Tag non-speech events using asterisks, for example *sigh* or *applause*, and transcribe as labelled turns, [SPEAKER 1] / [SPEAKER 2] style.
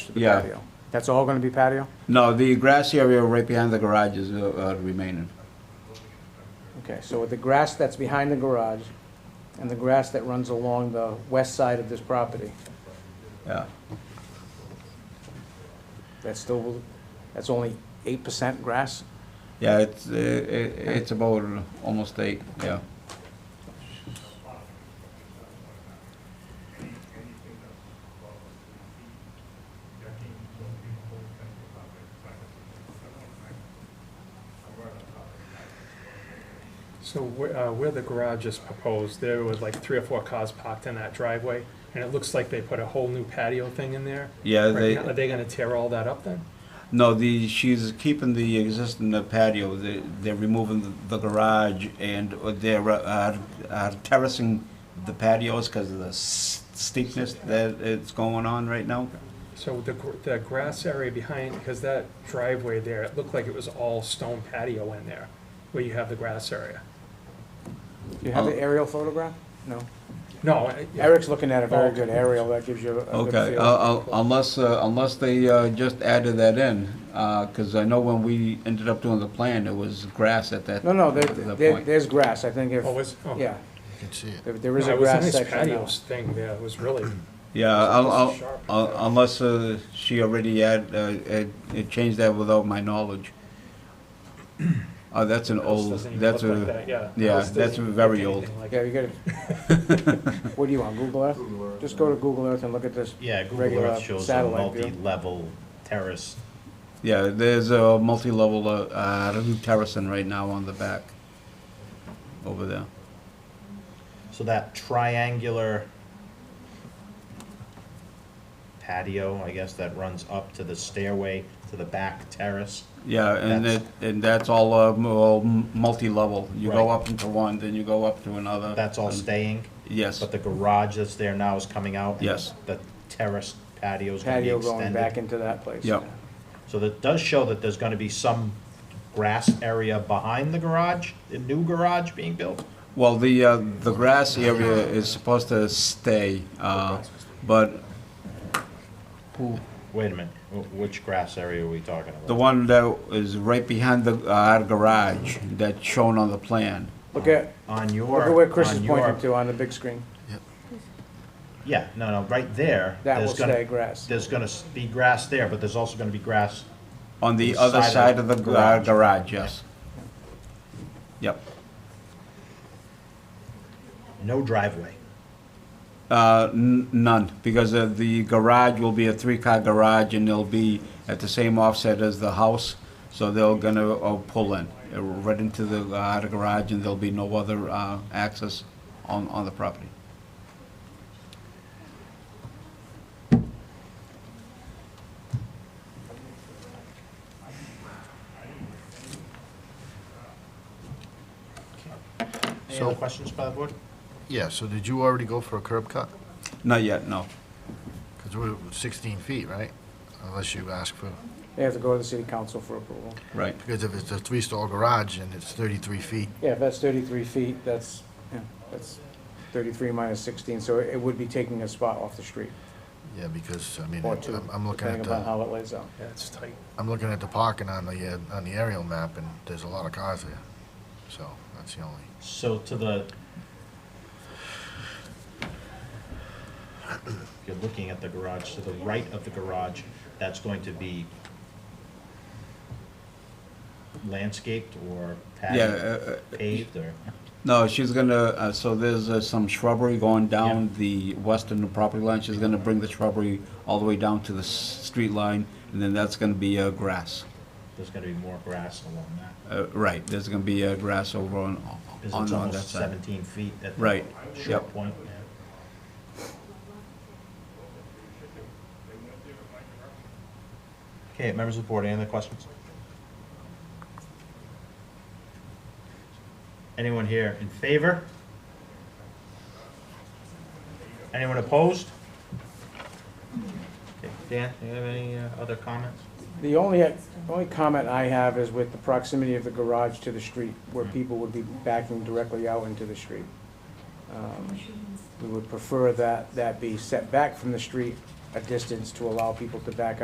[SPEAKER 1] to the
[SPEAKER 2] Yeah.
[SPEAKER 1] patio. That's all going to be patio?
[SPEAKER 2] No, the grassy area right behind the garage is uh, uh, remaining.
[SPEAKER 1] Okay, so with the grass that's behind the garage and the grass that runs along the west side of this property,
[SPEAKER 2] Yeah,
[SPEAKER 1] that's still, that's only eight percent grass?
[SPEAKER 2] yeah, it's, uh, it- it's about almost eight, yeah.
[SPEAKER 3] So where, uh, where the garage is proposed, there was like three or four cars parked in that driveway, and it looks like they put a whole new patio thing in there.
[SPEAKER 2] Yeah,
[SPEAKER 3] Right
[SPEAKER 2] they,
[SPEAKER 3] now, Are they gonna tear all that up then?
[SPEAKER 2] no, the, she's keeping the existing uh, patio, They- they're removing the- the garage and uh, they're uh, uh, terracing the patios because of the s- steepness that it's going on right now.
[SPEAKER 3] So the, gr- the grass area behind, because that driveway there, it looked like it was all stone patio in there, where you have the grass area.
[SPEAKER 1] Do you have
[SPEAKER 2] Oh.
[SPEAKER 1] the aerial photograph? No.
[SPEAKER 3] No, I-
[SPEAKER 1] Eric's looking at a
[SPEAKER 3] Oh.
[SPEAKER 1] very good aerial, that gives you a good
[SPEAKER 2] Okay,
[SPEAKER 1] feel.
[SPEAKER 2] uh, uh, unless, uh, unless they uh, just added that in, because I know when we ended up doing the plan, it was grass at that.
[SPEAKER 1] No, no, there,
[SPEAKER 2] that
[SPEAKER 1] there-
[SPEAKER 2] point.
[SPEAKER 1] there's grass, I think if,
[SPEAKER 3] oh, was, oh.
[SPEAKER 1] yeah,
[SPEAKER 4] can see it.
[SPEAKER 1] there- there is
[SPEAKER 3] No,
[SPEAKER 1] a
[SPEAKER 3] It was a
[SPEAKER 1] grass
[SPEAKER 3] nice
[SPEAKER 1] section now.
[SPEAKER 3] patio thing there, it was really,
[SPEAKER 2] Yeah, I'll, I'll,
[SPEAKER 3] Sharp.
[SPEAKER 2] I'll- unless uh, she already had, uh, had- had changed that without my knowledge. Oh, that's an
[SPEAKER 3] house
[SPEAKER 2] old,
[SPEAKER 3] doesn't even
[SPEAKER 2] that's
[SPEAKER 3] look like
[SPEAKER 2] a,
[SPEAKER 3] that, yeah.
[SPEAKER 2] yeah,
[SPEAKER 3] House doesn't
[SPEAKER 2] that's
[SPEAKER 3] even look
[SPEAKER 2] very old.
[SPEAKER 3] anything like
[SPEAKER 1] Yeah,
[SPEAKER 3] it.
[SPEAKER 1] you got
[SPEAKER 2] *laughs*
[SPEAKER 1] it. What do you want, Google Earth? Just go to Google Earth and look at this.
[SPEAKER 5] Yeah, Google
[SPEAKER 1] regular
[SPEAKER 5] Earth shows a
[SPEAKER 1] satellite view.
[SPEAKER 5] multi-level terrace.
[SPEAKER 2] yeah, there's a multi-level uh, uh, terracing right now on the back, over there.
[SPEAKER 5] So that triangular patio, I guess, that runs up to the stairway to the back terrace.
[SPEAKER 2] Yeah, and it,
[SPEAKER 5] That's-
[SPEAKER 2] and that's all, uh, m- all m- multi-level. You go
[SPEAKER 5] Right.
[SPEAKER 2] up into one, then you go up to another.
[SPEAKER 5] That's all
[SPEAKER 2] and-
[SPEAKER 5] staying,
[SPEAKER 2] Yes,
[SPEAKER 5] but the garage that's there now is coming out. and
[SPEAKER 2] Yes.
[SPEAKER 5] The terrace patio's gonna be
[SPEAKER 1] Patio going back
[SPEAKER 5] extended.
[SPEAKER 1] into that place.
[SPEAKER 2] Yep.
[SPEAKER 5] So that does show that there's gonna be some grass area behind the garage, the new garage being built.
[SPEAKER 2] well, the, uh, the grass area is supposed to stay, uh, but
[SPEAKER 5] Wait a minute, wh- which grass area are we talking about?
[SPEAKER 2] the one that is right behind the, uh, garage that's shown on the plan.
[SPEAKER 1] Look at,
[SPEAKER 5] On your.
[SPEAKER 1] look at where Chris
[SPEAKER 5] on
[SPEAKER 1] is
[SPEAKER 5] your-
[SPEAKER 1] pointing to on the big screen.
[SPEAKER 5] Yeah, no, no, right there.
[SPEAKER 1] That will
[SPEAKER 5] there's gonna-
[SPEAKER 1] stay grass.
[SPEAKER 5] There's gonna s- be grass there, but there's also gonna be grass,
[SPEAKER 2] On the other side of the gar- garage, yes. Yep.
[SPEAKER 5] no driveway.
[SPEAKER 2] Uh, n- none, because uh, the garage will be a three-car garage, and they'll be at the same offset as the house, so they're gonna uh, pull in, uh, right into the uh, the garage, and there'll be no other uh, access on on the property.
[SPEAKER 5] Any
[SPEAKER 4] So-
[SPEAKER 5] other questions by the board?
[SPEAKER 4] Yeah, so did you already go for a curb cut?
[SPEAKER 2] Not yet, no.
[SPEAKER 4] Because we're 16 feet, right? Unless you ask for,
[SPEAKER 1] They have to go to the city council for approval.
[SPEAKER 2] Right.
[SPEAKER 4] because if it's a three-stall garage and it's 33 feet,
[SPEAKER 1] Yeah, if that's thirty-three feet, that's, yeah, that's thirty-three minus sixteen, so it would be taking a spot off the street,
[SPEAKER 4] yeah, because, I mean,
[SPEAKER 1] or two,
[SPEAKER 4] I'm I'm looking at
[SPEAKER 1] depending upon
[SPEAKER 4] the,
[SPEAKER 1] how it lays out.
[SPEAKER 3] Yeah, it's tight.
[SPEAKER 4] I'm looking at the parking on the, uh, on the aerial map, and there's a lot of cars there. So that's the only,
[SPEAKER 5] So to the. *coughs* If you're looking at the garage, to the right of the garage, that's going to be landscaped or
[SPEAKER 2] Yeah,
[SPEAKER 5] patio,
[SPEAKER 2] uh, uh,
[SPEAKER 5] paved or,
[SPEAKER 2] no, she's gonna, uh, so there's uh, some shrubbery going down the western property line. She's gonna bring the shrubbery all the way down to the s- street line, and then that's gonna be uh, grass.
[SPEAKER 5] there's gonna be more grass along that.
[SPEAKER 2] Uh, Right, there's gonna be uh, grass over on
[SPEAKER 5] Because
[SPEAKER 2] on on
[SPEAKER 5] it's
[SPEAKER 2] that
[SPEAKER 5] almost
[SPEAKER 2] side.
[SPEAKER 5] seventeen feet at the
[SPEAKER 2] Right,
[SPEAKER 5] short
[SPEAKER 2] yep.
[SPEAKER 5] point. yeah. Okay, members of the board, any other questions? Anyone here in favor? Anyone opposed? Okay, Dan, do you have any uh, other comments?
[SPEAKER 1] The only, only comment I have is with the proximity of the garage to the street, where
[SPEAKER 5] Mm.
[SPEAKER 1] people would be backing directly out into the street. Um, We would prefer that, that be set back from the street a distance to allow people to back